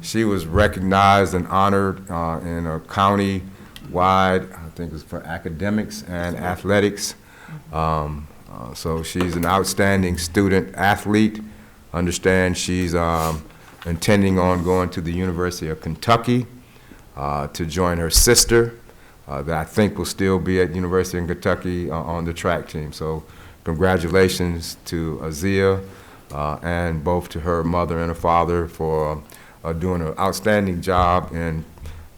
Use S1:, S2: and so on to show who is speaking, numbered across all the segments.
S1: She was recognized and honored uh, in a county-wide, I think it's for academics and athletics. Um, uh, So she's an outstanding student athlete. Understand she's um, intending on going to the University of Kentucky uh, to join her sister, uh, that I think will still be at University of Kentucky uh, on the track team. So congratulations to Azia uh, and both to her mother and her father for uh, doing an outstanding job in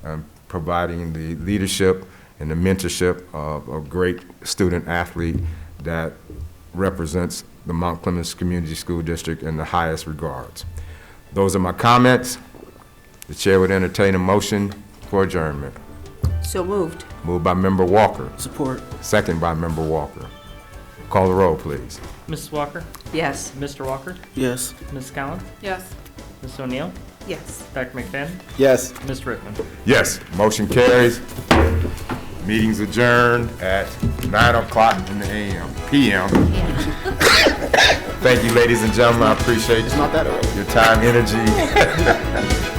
S1: um, providing the leadership and the mentorship of a great student athlete that represents the Mount Clemens Community School District in the highest regards. Those are my comments. The chair would entertain a motion for adjournment.
S2: So moved.
S1: Moved by member Walker,
S3: Support.
S1: second by member Walker. Call the roll, please.
S4: Mrs. Walker,
S2: Yes.
S4: Mr. Walker,
S3: Yes.
S4: Ms. Collins,
S2: Yes.
S4: Ms. O'Neill,
S2: Yes.
S4: Dr. McFadden,
S3: Yes.
S4: Ms. Rickman.
S1: Yes, motion carries. Meeting's adjourned at nine o'clock in the AM, PM. Thank you, ladies and gentlemen, I appreciate
S3: Not that early.
S1: your time, energy.